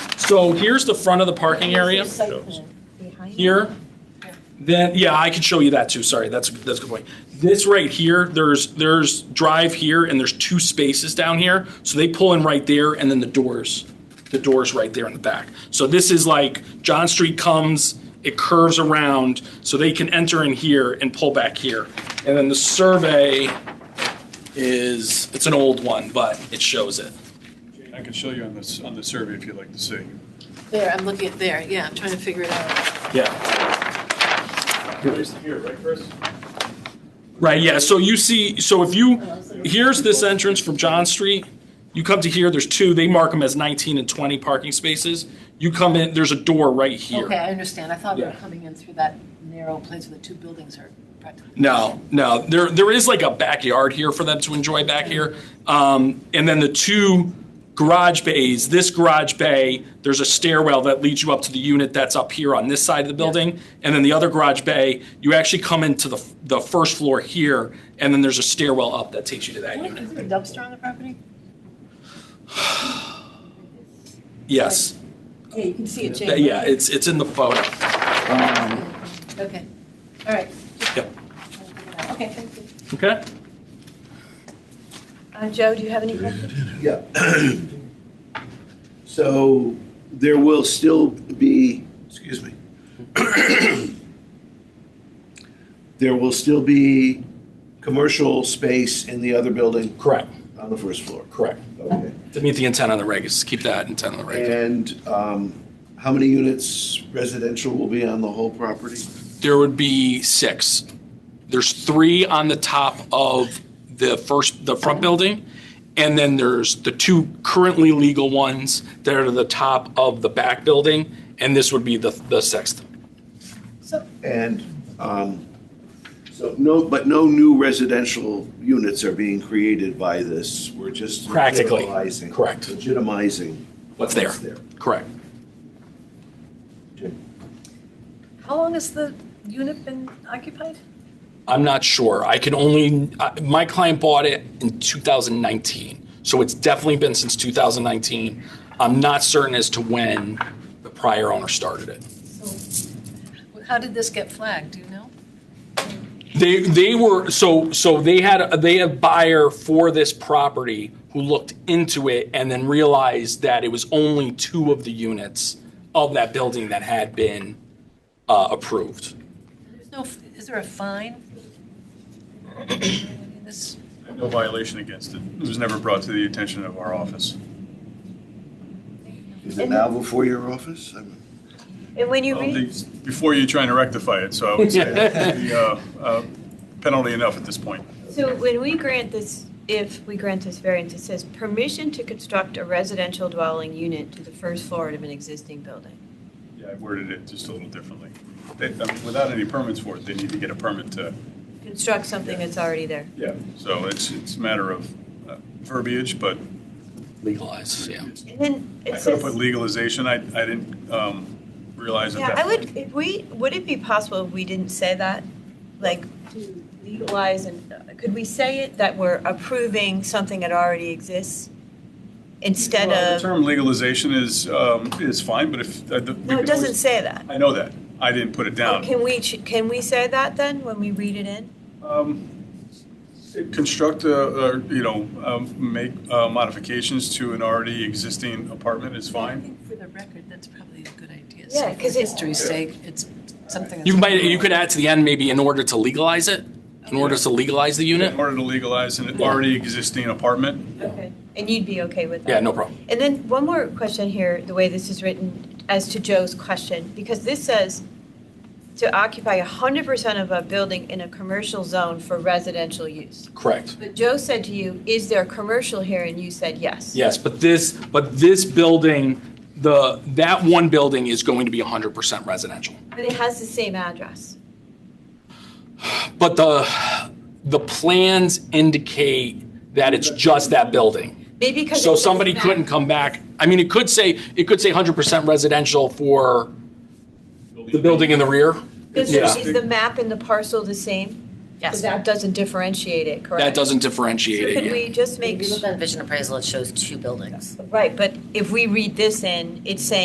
So here's the front of the parking area. There's a site plan behind it. here, then, yeah, I can show you that too, sorry, that's, that's a good point. This right here, there's, there's drive here and there's two spaces down here, so they pull in right there and then the doors, the doors right there in the back. So this is like, John Street comes, it curves around, so they can enter in here and pull back here. And then the survey is, it's an old one, but it shows it. I can show you on this, on the survey if you'd like to see. There, I'm looking at there, yeah, I'm trying to figure it out. Yeah. Here, right, Chris? Right, yeah, so you see, so if you, here's this entrance from John Street, you come to here, there's two, they mark them as 19 and 20 parking spaces. You come in, there's a door right Okay, here. I understand, I thought we were Yeah. coming in through that narrow place where the two buildings are practically. No, no, there, there is like a backyard here for them to enjoy back here. Um, And then the two garage bays, this garage bay, there's a stairwell that leads you up to the unit that's up here on this side of the building. And then the other garage bay, you actually come into the, the first floor here, and then there's a stairwell up that takes you to that unit. Is there a dumpster on the property? Yes. Yeah, you can see it, Th- Yeah, it's, it's in the photo. Okay, all right. Yep. Okay, thank you. Okay. Uh, Joe, do you have any questions? Yeah. So there will still be, excuse me. There will still be commercial space in the other building Correct, on the first floor. correct. Okay. To meet the intent on the reg, is keep that intent on the reg. And um, how many units residential will be on the whole property? There would be six. There's three on the top of the first, the front building, and then there's the two currently legal ones that are to the top of the back building, and this would be the, the sixth. So, And um, so no, but no new residential units are being created by this. We're just Practically, legitimizing- correct. Legitimizing What's there? Correct. How long has the unit been occupied? I'm not sure. I can only, I- my client bought it in 2019, so it's definitely been since 2019. I'm not certain as to when the prior owner started it. how did this get flagged, do you know? They, they were, so, so they had, they had a buyer for this property who looked into it and then realized that it was only two of the units of that building that had been uh, approved. There's no, is there a fine? This, No violation against it. It was never brought to the attention of our office. Is it now before your office? I mean, And when you Well, read, Um, the- Before you trying to rectify it, so I would say that would be, uh, uh, penalty enough at this point. So when we grant this, if we grant this variance, it says permission to construct a residential dwelling unit to the first floor of an existing building. Yeah, I worded it just a little differently. They, I mean, without any permits for it, they need to get a permit to, Construct something that's already there. yeah. So it's, it's a matter of uh, verbiage, but Legalized, yeah. And I then it could have says, put legalization. I, I didn't um, realize at yeah, that I point. would, if we, would it be possible if we didn't say that? Like to legalize and, uh, could we say it that we're approving something that already exists? Instead Well, The of, term legalization is, um, is fine, but if. uh, the- we no, it could doesn't always- say that. I know that. I didn't put it down. Can we, ch- can we say that then when we read it in? Um, Construct, a- or, you know, um, make uh, modifications to an already existing apartment is I fine. think for the record, that's probably a good idea. Yeah, So for 'cause it- history's sake, it's something. that's- You might, you could add to the end maybe in order to legalize it, in order to legalize the In unit. order to legalize an already existing apartment, Okay. And you'd be okay with that? Yeah, no problem. And then one more question here, the way this is written, as to Joe's question, because this says to occupy 100% of a building in a commercial zone for residential use. Correct. But Joe said to you, is there commercial here? And you said yes. Yes, but this, but this building, the, that one building is going to be 100% residential. But it has the same address. But the, the plans indicate that it's just that building. Maybe because. So it says somebody back. couldn't come back, I mean, it could say, it could say 100% residential for the building in the rear. Is Yeah. is the map and the parcel the same? Yes. So that doesn't differentiate it, correct? That doesn't So differentiate it. could yeah. we just If make, you look on vision appraisal, it shows two buildings. right, but if we read this in, it's saying